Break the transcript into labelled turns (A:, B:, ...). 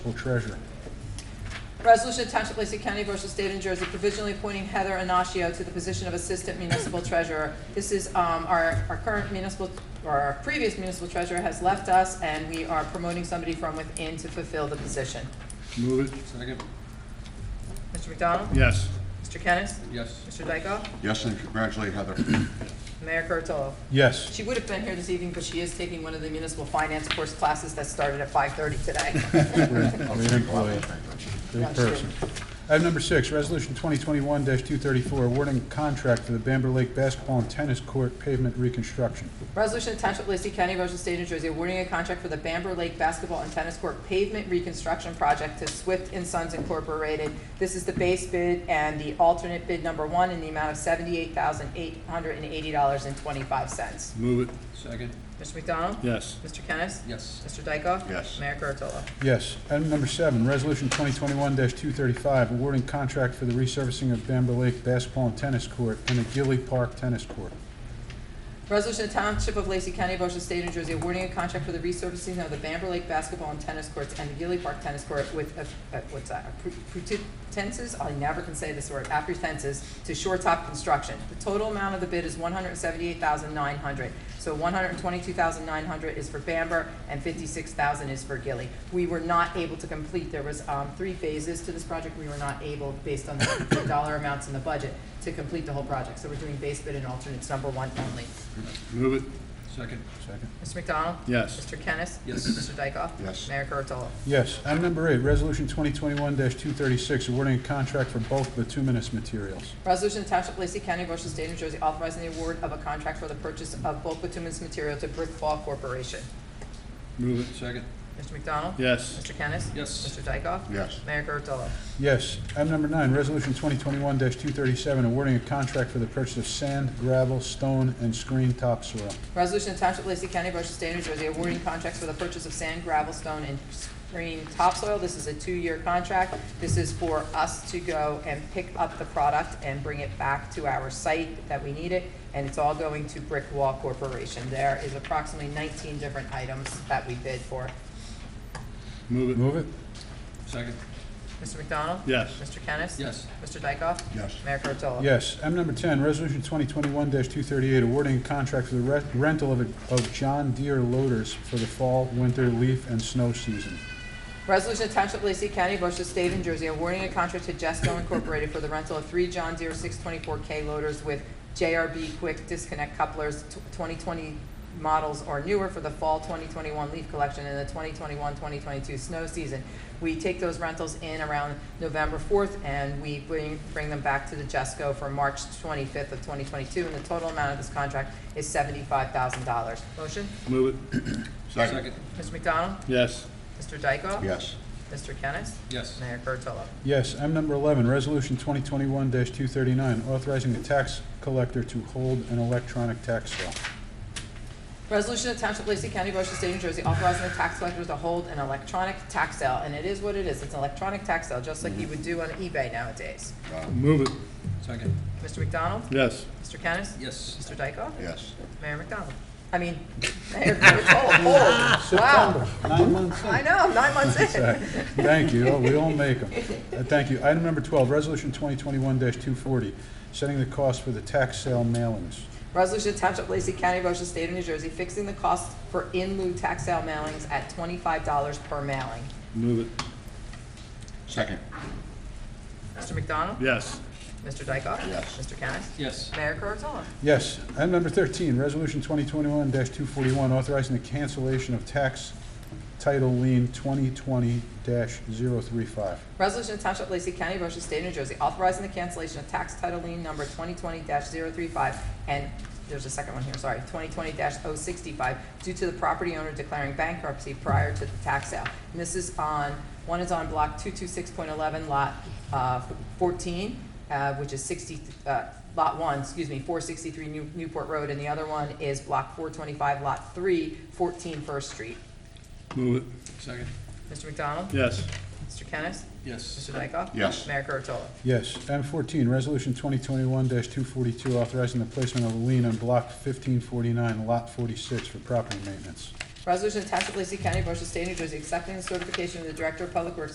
A: or treasurer.
B: Resolution of Township of Lacey County, Ocean State, New Jersey, provisionally appointing Heather Anaccio to the position of Assistant Municipal Treasurer. This is, um, our, our current municipal, or our previous municipal treasurer has left us, and we are promoting somebody from within to fulfill the position.
A: Move it. Second.
B: Mr. McDonald?
A: Yes.
B: Mr. Kennis?
A: Yes.
B: Mr. Dykoff?
C: Yes, and congratulate Heather.
B: Mayor Kurtolo?
A: Yes.
B: She would have been here this evening, but she is taking one of the municipal finance course classes that started at five-thirty today.
A: Great employee. Great person. Item number six, Resolution 2021-234, awarding contract for the Bamber Lake Basketball and Tennis Court pavement reconstruction.
B: Resolution of Township of Lacey County, Ocean State, New Jersey, awarding a contract for the Bamber Lake Basketball and Tennis Court Pavement Reconstruction Project to Swift and Sons Incorporated. This is the base bid and the alternate bid number one in the amount of seventy-eight thousand eight hundred and eighty dollars and twenty-five cents.
A: Move it.
D: Second,
B: Mr. McDonald?
A: Yes.
B: Mr. Kennis?
D: yes.
B: Mr. Dykoff?
C: Yes.
B: Mayor Kurtolo?
A: Yes. Item number seven, Resolution 2021-235, awarding contract for the resurfacing of Bamber Lake Basketball and Tennis Court and the Gilly Park Tennis Court.
B: Resolution of Township of Lacey County, Ocean State, New Jersey, awarding a contract for the resurfacing of the Bamber Lake basketball and tennis courts and the Gilly Park tennis court with, uh, uh, what's that, appro- pretenses, I never can say this word, apprehenses, to Shore Top Construction. The total amount of the bid is one hundred seventy-eight thousand nine hundred. So one hundred twenty-two thousand nine hundred is for Bamber and fifty-six thousand is for Gilly. We were not able to complete, there was, um, three phases to this project. We were not able, based on the dollar amounts in the budget, to complete the whole project. So we're doing base bid and alternates number one only.
A: Move it.
D: Second,
A: Second.
B: Mr. McDonald?
A: Yes.
B: Mr. Kennis?
D: Yes.
B: Mr. Dykoff?
C: Yes.
B: Mayor Kurtolo?
A: Yes. Item number eight, Resolution 2021-236, awarding a contract for bulk bituminous materials.
B: Resolution to Township of Lacey County, Ocean State, New Jersey, authorizing the award of a contract for the purchase of bulk bituminous material to Brick Fall Corporation.
D: move it. Second,
B: Mr. McDonald?
A: Yes.
B: Mr. Kennis?
D: Yes.
B: Mr. Dykoff?
C: Yes,
B: Mayor Kurtolo?
A: Yes. Item number nine, Resolution 2021-237, awarding a contract for the purchase of sand, gravel, stone, and screen topsoil.
B: Resolution to Township of Lacey County, Ocean State, New Jersey, awarding contracts for the purchase of sand, gravel, stone, and screen topsoil. This is a two-year contract. This is for us to go and pick up the product and bring it back to our site that we need it, and it's all going to Brick Wall Corporation. There is approximately nineteen different items that we bid for.
A: Move it. Move it.
D: second,
B: Mr. McDonald?
A: Yes.
B: Mr. Kennis?
D: yes.
B: Mr. Dykoff?
C: yes,
B: Mayor Kurtolo?
A: Yes. Item number 10, Resolution 2021-238, awarding a contract for the re- rental of a- of John Deere loaders for the fall, winter, leaf, and snow season.
B: Resolution of Township of Lacey County, Ocean State, New Jersey, awarding a contract to Jesco Incorporated for the rental of three John Deere 624K loaders with JRB Quick Disconnect Couplers, tw- 2020 models or newer for the fall 2021 leaf collection and the 2021-2022 snow season. We take those rentals in around November 4th, and we bring bring them back to the Jesco for March 25th of 2022, and the total amount of this contract is $75,000. Motion?
A: Move it.
C: second,
B: Mr. McDonald?
A: Yes.
B: Mr. Dykoff?
C: yes,
B: Mr. Kennis?
D: Yes,
B: Mayor Kurtolo?
A: Yes. Item number 11, Resolution 2021-239, authorizing the tax collector to hold an electronic tax sale.
B: Resolution of Township of Lacey County, Ocean State, New Jersey, authorizing the tax collector to hold an electronic tax sale, and it is what it is, it's an electronic tax sale, just like you would do on eBay nowadays.
A: Move it.
D: second,
B: Mr. McDonald?
A: Yes.
B: Mr. Kennis?
D: yes.
B: Mr. Dykoff?
C: yes.
B: Mayor McDonald? I mean, Mayor Kurtolo, hold, wow,
A: Nine months
B: I know, I'm nine months in.
A: Thank you, Oh, we all make them. Thank you. Item number 12, Resolution 2021-240, setting the cost for the tax sale mailings.
B: Resolution to Township of Lacey County, Ocean State of New Jersey, fixing the cost for in lieu tax sale mailings at twenty-five dollars per mailing.
A: Move it.
C: Second,
B: Mr. McDonald?
A: Yes.
B: Mr. Dykoff?
C: Yes.
B: Mr. Kennis?
D: Yes,
B: Mayor Kurtolo?
A: Yes. Item number 13, Resolution 2021-241, authorizing the cancellation of tax title lien 2020-035.
B: Resolution of Township of Lacey County, Ocean State, New Jersey, authorizing the cancellation of tax title lien number 2020-035, and there's a second one here, sorry, 2020-065, due to the property owner declaring bankruptcy prior to the tax sale. And this is on, one is on Block 226.11, Lot uh, 14, uh, which is 60, uh, Lot 1, excuse me, 463 New- Newport Road, and the other one is Block 425, Lot 3, 14 First Street.
A: Move it.
D: second,
B: Mr. McDonald?
A: Yes.
B: Mr. Kennis?
D: yes.
B: Mr. Dykoff?
C: Yes.
B: Mayor Kurtolo?
A: Yes. Item 14, Resolution 2021-242, authorizing the placement of a lien on Block 1549, Lot 46 for property maintenance.
B: Resolution to Township of Lacey County, Ocean State, New Jersey, accepting the certification of the Director of Public Works